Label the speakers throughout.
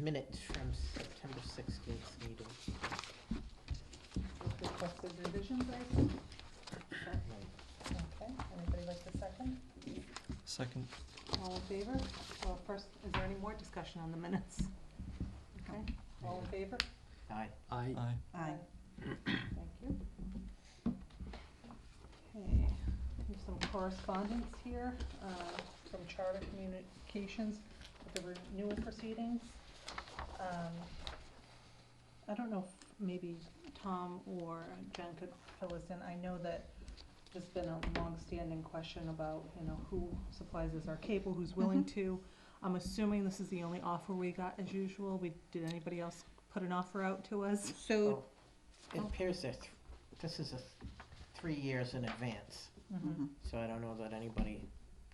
Speaker 1: minutes from September sixteenth meeting.
Speaker 2: With requested revisions, I think. Okay, anybody like the second?
Speaker 3: Second.
Speaker 2: All in favor? Well, first, is there any more discussion on the minutes? Okay, all in favor?
Speaker 1: Aye.
Speaker 4: I,
Speaker 3: Aye.
Speaker 2: Aye. Thank you. Okay, we have some correspondence here uh, from Charter Communications with the renewal proceedings. Um, I don't know if maybe Tom or Jen could fill us in. I know that there's been a long-standing question about, you know, who supplies us our cable, who's willing to. I'm assuming this is the only offer we got as usual. We, did anybody else put an offer out to us?
Speaker 4: so,
Speaker 1: Oh, It appears that th- this is a, th- three years in advance,
Speaker 2: Mm-hmm.
Speaker 4: mhm.
Speaker 1: so I don't know that anybody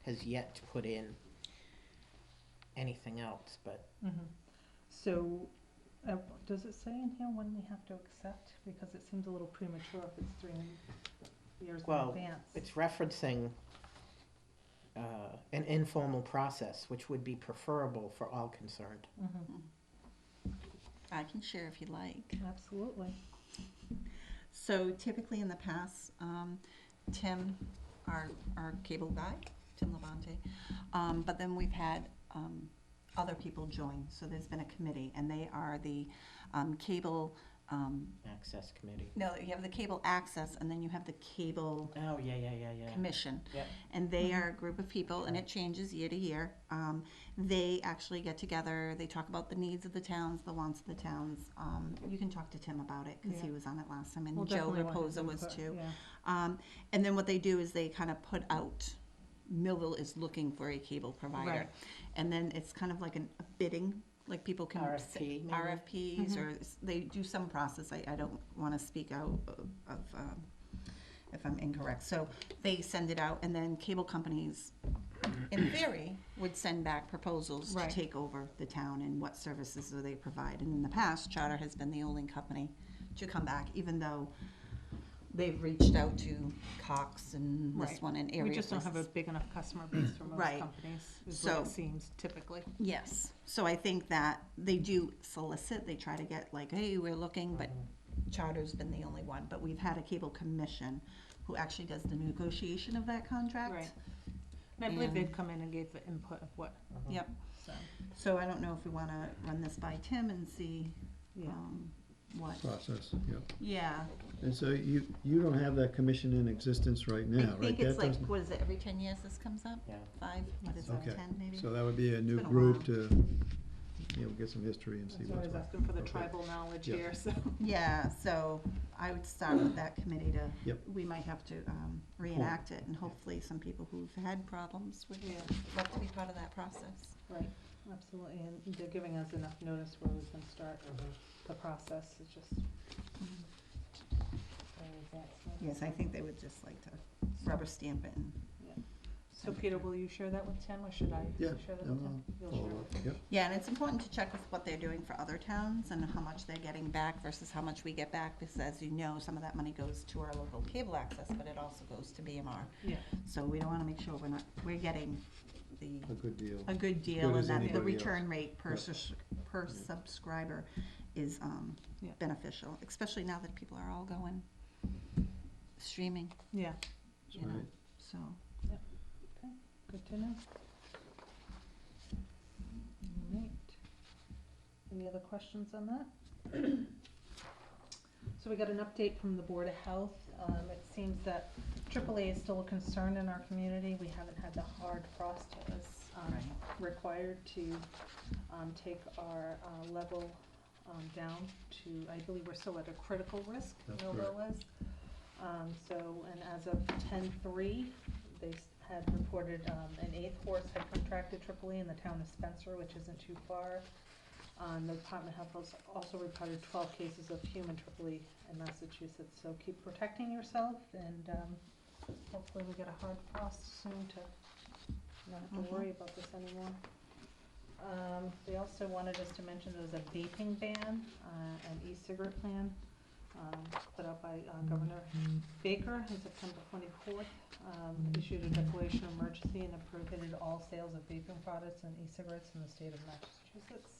Speaker 1: has yet to put in anything else, but
Speaker 2: Mhm. So, uh, does it say in here when we have to accept? Because it seems a little premature if it's three years in
Speaker 1: Well,
Speaker 2: advance.
Speaker 1: it's referencing uh, an informal process, which would be preferable for all concerned.
Speaker 2: Mhm.
Speaker 4: I can share if you like.
Speaker 2: Absolutely.
Speaker 4: So typically in the past, um, Tim, our, our cable guy, Tim Levante, um, but then we've had, um, other people join, so there's been a committee, and they are the, um, cable, um,
Speaker 1: Access committee.
Speaker 4: no, you have the cable access, and then you have the cable
Speaker 1: Oh, yeah, yeah, yeah, yeah.
Speaker 4: commission.
Speaker 1: Yep.
Speaker 4: And they
Speaker 2: Mm-hmm.
Speaker 4: are a group of people, and it changes year to year. Um, they actually get together, they talk about the needs of the towns, the wants of the towns. Um, you can talk to Tim about it, because he
Speaker 2: Yeah.
Speaker 4: was on it last time, and
Speaker 2: We'll
Speaker 4: Joe
Speaker 2: definitely want his
Speaker 4: Reposa was
Speaker 2: input,
Speaker 4: too.
Speaker 2: yeah.
Speaker 4: Um, and then what they do is they kind of put out, Millville is looking for a cable provider.
Speaker 2: Right.
Speaker 4: And then it's kind of like an, a bidding, like people can. s-
Speaker 1: RFP, maybe?
Speaker 4: RFPs,
Speaker 2: Mm-hmm.
Speaker 4: or s- they do some process, I, I don't wanna speak out of, of, um, if I'm incorrect. So they send it out, and then cable companies, in theory, would send back proposals to
Speaker 2: Right.
Speaker 4: take over the town and what services do they provide. And in the past, Charter has been the only company to come back, even though they've reached out to Cox and this
Speaker 2: Right.
Speaker 4: one and area
Speaker 2: We just don't have a
Speaker 4: places.
Speaker 2: big enough customer base for most
Speaker 4: Right.
Speaker 2: companies, is
Speaker 4: So-
Speaker 2: what it seems typically.
Speaker 4: Yes, so I think that they do solicit, they try to get like, hey, we're looking, but Charter's been the only one, but we've had a cable commission who actually does the negotiation of that contract.
Speaker 2: Right. And I believe they've
Speaker 4: And-
Speaker 2: come in and gave the input of what,
Speaker 4: Yep,
Speaker 2: so.
Speaker 4: so I don't know if we wanna run this by Tim and see,
Speaker 2: Yeah.
Speaker 4: um, what,
Speaker 5: process, yeah.
Speaker 4: yeah.
Speaker 5: And so you, you don't have that commission in existence right
Speaker 4: I
Speaker 5: now, right?
Speaker 4: think it's
Speaker 5: That
Speaker 4: like,
Speaker 5: doesn't-
Speaker 4: what is it, every ten years this comes up?
Speaker 1: Yeah.
Speaker 4: Five, what is it,
Speaker 5: Okay.
Speaker 4: ten maybe?
Speaker 5: So that would be a new
Speaker 4: been a while.
Speaker 5: group to, you know, get some history and see
Speaker 2: That's
Speaker 5: what's
Speaker 2: always
Speaker 5: what.
Speaker 2: asking for the
Speaker 5: Okay.
Speaker 2: tribal knowledge
Speaker 5: Yeah.
Speaker 2: here, so.
Speaker 4: Yeah, so I would start with that committee to.
Speaker 5: Yep.
Speaker 4: We might have to um, reenact it and hopefully some people who've had problems would
Speaker 2: Yeah.
Speaker 4: love to be part of that process.
Speaker 2: Right, absolutely, and they're giving us enough notice where we can start
Speaker 5: Mm-hmm.
Speaker 2: the process, it's just.
Speaker 4: Mm-hmm. Yes, I think they would just like to rubber stamp it and.
Speaker 2: So Peter, will you share that with Tim, or should I
Speaker 5: Yeah,
Speaker 2: share that
Speaker 5: I'll
Speaker 2: with Tim? You'll share
Speaker 5: follow
Speaker 2: with
Speaker 5: up, yep.
Speaker 4: Yeah, and it's important to check with what they're doing for other towns and how much they're getting back versus how much we get back. Because as you know, some of that money goes to our local cable access, but it also goes to BMR.
Speaker 2: Yeah,
Speaker 4: So we don't want to make sure we're not, we're getting the
Speaker 5: A good deal.
Speaker 4: a good deal
Speaker 5: good
Speaker 4: and
Speaker 5: as
Speaker 4: that the
Speaker 5: anybody else.
Speaker 4: return rate per
Speaker 5: Yeah.
Speaker 4: sus- per subscriber is um,
Speaker 2: Yeah.
Speaker 4: beneficial, especially now that people are all going streaming,
Speaker 2: yeah,
Speaker 4: you know,
Speaker 5: Right.
Speaker 4: so.
Speaker 2: good to know. Alright, any other questions on that? So we got an update from the Board of Health, um, it seems that AAA is still a concern in our community, we haven't had the hard frost that was, um, required to, um, take our, uh, level, um, down to, I believe we're still at a critical risk,
Speaker 5: That's
Speaker 2: Millville is. Um, so, and as of ten-three, they s- had reported, um, an eighth horse had contracted AAA in the town of Spencer, which isn't too far. Um, the Department of Health has also reported twelve cases of human AAA in Massachusetts, so keep protecting yourself and, um, hopefully we get a hard frost soon to not have
Speaker 4: Mhm.
Speaker 2: to worry about this anymore. Um, they also wanted us to mention there was a vaping ban, uh, an e-cigarette ban, um, put out by uh, Governor Baker on September twenty-fourth. Um, issued a declaration of emergency and prohibited all sales of vaping products and e-cigarettes in the state of Massachusetts.